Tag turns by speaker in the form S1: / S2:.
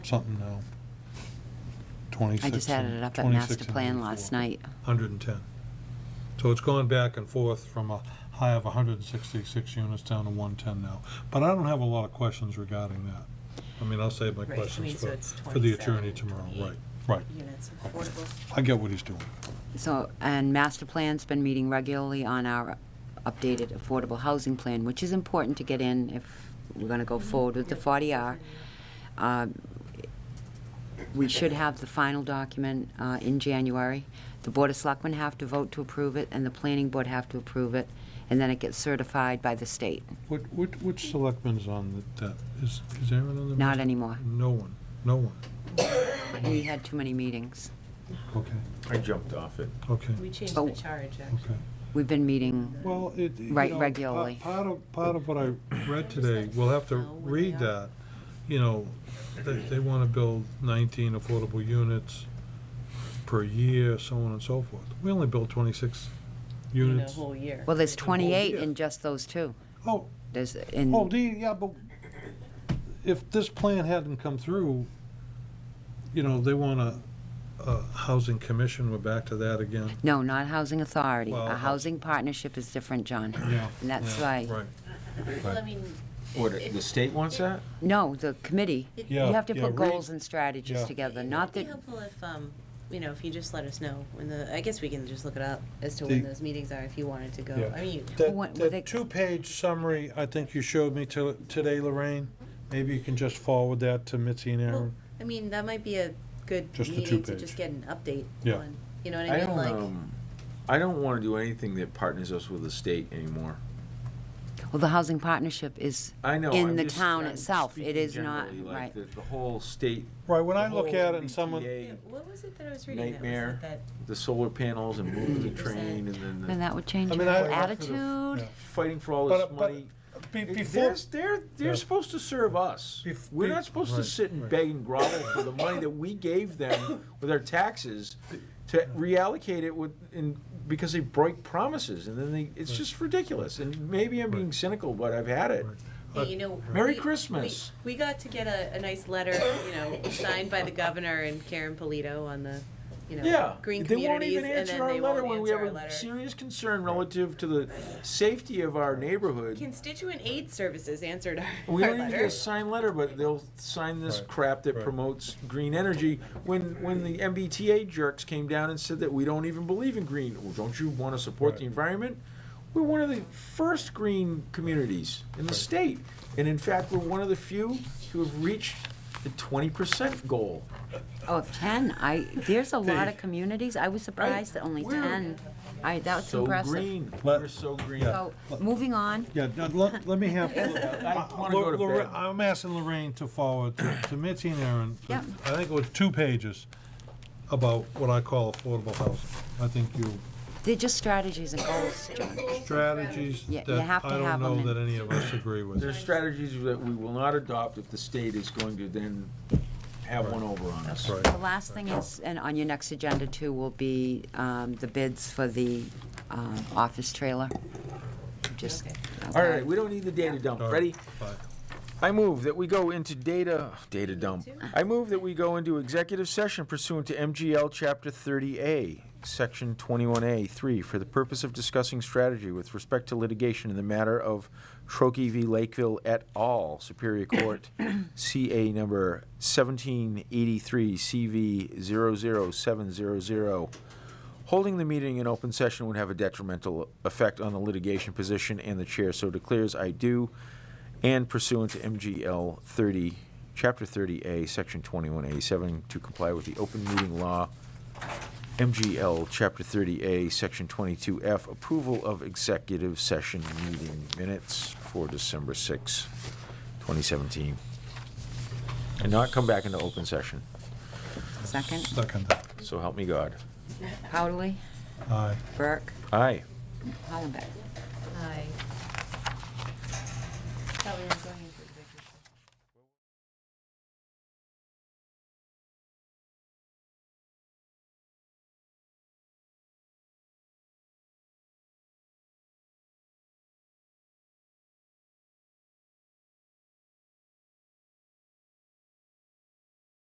S1: something now. Twenty-six.
S2: I just added it up at master plan last night.
S1: Hundred and ten. So it's gone back and forth from a high of hundred and sixty-six units down to one ten now. But I don't have a lot of questions regarding that. I mean, I'll save my
S3: Right, I
S1: questions
S3: mean, so
S1: for,
S3: it's
S1: for the
S3: 27,
S1: attorney tomorrow,
S3: 28.
S1: right, right.
S3: units of affordable.
S1: I get what he's doing.
S2: So, and master plan's been meeting regularly on our updated affordable housing plan, which is important to get in if we're gonna go forward with the forty R. Um, We should have the final document uh, in January. The Board of Selectmen have to vote to approve it, and the Planning Board have to approve it, and then it gets certified by the state.
S1: What, what, which selectmen's on the- that? Is, is Aaron on the?
S2: Not
S1: master-
S2: anymore.
S1: No one, no one.
S2: We had too many meetings.
S1: Okay,
S4: I jumped off it.
S1: okay,
S3: We changed
S2: Oh.
S3: the charge, uh, actually.
S1: okay.
S2: We've been meeting,
S1: Well, it. you
S2: Right,
S1: know, pa-
S2: regularly.
S1: Part of, part of what I read today, we'll have to
S3: Know where they
S1: read
S3: are.
S1: that, you know, they, they wanna build nineteen affordable units per year, so on and so forth. We only built twenty-six
S3: In a
S1: units.
S3: whole year.
S2: well, there's
S3: The whole
S2: twenty-eight
S3: year.
S2: in just those two.
S1: Oh,
S2: There's, in.
S1: oh, the, yeah, but if this plan hadn't come through, you know, they want a, a housing commission, we're back to that again.
S2: No, not Housing Authority.
S1: Well, uh,
S2: A housing partnership is different, John.
S1: Yeah.
S2: And that's
S1: yeah,
S2: why,
S1: Right.
S3: Well, I mean,
S4: What, the state wants that?
S2: no, the committee, you
S1: Yeah,
S2: have to
S1: yeah,
S2: put
S1: read-
S2: goals and strategies
S1: yeah.
S2: together,
S3: it'd
S2: not
S3: be
S2: that,
S3: helpful if, um, you know, if you just let us know when the, I guess we can just look it up as to when
S1: The-
S3: those meetings are if you wanted to
S1: Yeah.
S3: go. I mean, you-
S1: The,
S2: What-
S1: the
S2: what they-
S1: two-page summary, I think you showed me to, today, Lorraine, maybe you can just forward that to Mitzi and
S3: well,
S1: Aaron.
S3: I mean, that might be a good
S1: Just the
S3: meeting to
S1: two-page.
S3: just get an update
S1: Yeah.
S3: on, you know what
S4: I
S3: I
S4: don't,
S3: mean? Like,
S4: um, I don't wanna do anything that partners us with the state anymore.
S2: well, the housing partnership is
S4: I know.
S2: in
S4: I'm
S2: the
S4: just-
S2: town
S4: I'm
S2: itself. It
S4: speaking
S2: is not,
S4: generally, like
S2: right.
S4: The the whole state,
S1: Right, when
S4: the
S1: I look
S4: whole
S1: at it and someone,
S4: MBTA,
S3: what was it that I was reading? that was
S4: Nightmare.
S3: like That
S4: The solar panels and moving the
S3: 50%.
S4: train and then
S2: Then
S4: the
S2: that would change
S1: I mean,
S2: your
S1: I-
S2: whole attitude.
S1: Yeah.
S4: fighting for all
S1: But-
S4: this
S1: but
S4: money.
S1: be-
S4: It-
S1: before,
S4: They're, they're,
S1: Yeah.
S4: they're supposed to serve us.
S1: Bef-
S4: We're
S1: be-
S4: not supposed to
S1: right,
S4: sit and
S1: right.
S4: beg and grovel for the money that we gave them with our taxes to reallocate it with, in, because they break promises, and then they, it's just ridiculous. And maybe I'm being cynical, but I've had it.
S1: Right.
S3: Yeah, you know.
S4: Merry
S3: we-
S4: Christmas.
S3: We we got to get a, a nice letter, you know, signed by the governor and Karen Polito on the, you
S4: Yeah,
S3: know, green
S4: they won't
S3: communities,
S4: even
S3: and
S4: answer
S3: then
S4: our
S3: they
S4: letter when
S3: won't
S4: we
S3: answer
S4: have
S3: our
S4: a
S3: letter.
S4: serious concern relative to the safety of our neighborhood.
S3: Constituent aid services answered our,
S4: We
S3: our
S4: don't even get a
S3: letter.
S4: signed letter, but they'll sign this
S1: Right,
S4: crap that
S1: right.
S4: promotes green energy. When, when the MBTA jerks came down and said that we don't even believe in green, well, don't you wanna support the
S1: Right.
S4: environment? We're one of the first green communities in the
S1: Right.
S4: state, and in fact, we're one of the few who have reached the twenty percent goal.
S2: Oh, of ten, I, there's a lot
S4: They-
S2: of communities. I was surprised that only
S4: We're-
S2: ten. I, that was
S4: So
S2: impressive.
S4: green,
S1: Let-
S4: we're so green.
S1: yeah.
S2: So, moving on,
S1: yeah, now let, let me have,
S4: I wanna go
S1: Lor-
S4: to
S1: Lorraine-
S4: bed.
S1: Uh, I'm asking Lorraine to forward to to Mitzi and Aaron,
S2: Yep.
S1: I think it was two pages about what I call affordable housing. I think you,
S2: they're just strategies and goals, John.
S1: strategies
S2: Yeah, you
S1: that
S2: have to
S1: I
S2: have
S1: don't
S2: 'em
S1: know
S2: in.
S1: that any of us agree with.
S4: There's strategies that we will not adopt if the state is going to then have one over on us.
S1: Right.
S2: The last thing is, and on your next agenda too, will be um, the bids for the um, office trailer. Just. uh,
S3: Okay.
S4: All right, we don't need the data dump.
S1: All right,
S4: Ready?
S1: bye.
S4: I move that we go into data, data dump.
S3: too.
S4: I move that we go into executive session pursuant to MGL Chapter 30A, Section 21A, 3, for the purpose of discussing strategy with respect to litigation in the matter of Trokey v. Lakeville et al., Superior Court, CA number 1783, CV 00700. Holding the meeting in open session would have a detrimental effect on the litigation position, and the chair so declares I do, and pursuant to MGL 30, Chapter 30A, Section 21A7, to comply with the open meeting law, MGL Chapter 30A, Section 22F, approval of executive session meeting minutes for December 6, 2017. And not come back into open session,
S2: Second,
S1: Second,
S4: so help me God.
S2: Powderly,
S1: aye.
S2: Burke,
S4: Aye.
S2: Hollenbeck.
S3: Hi. That was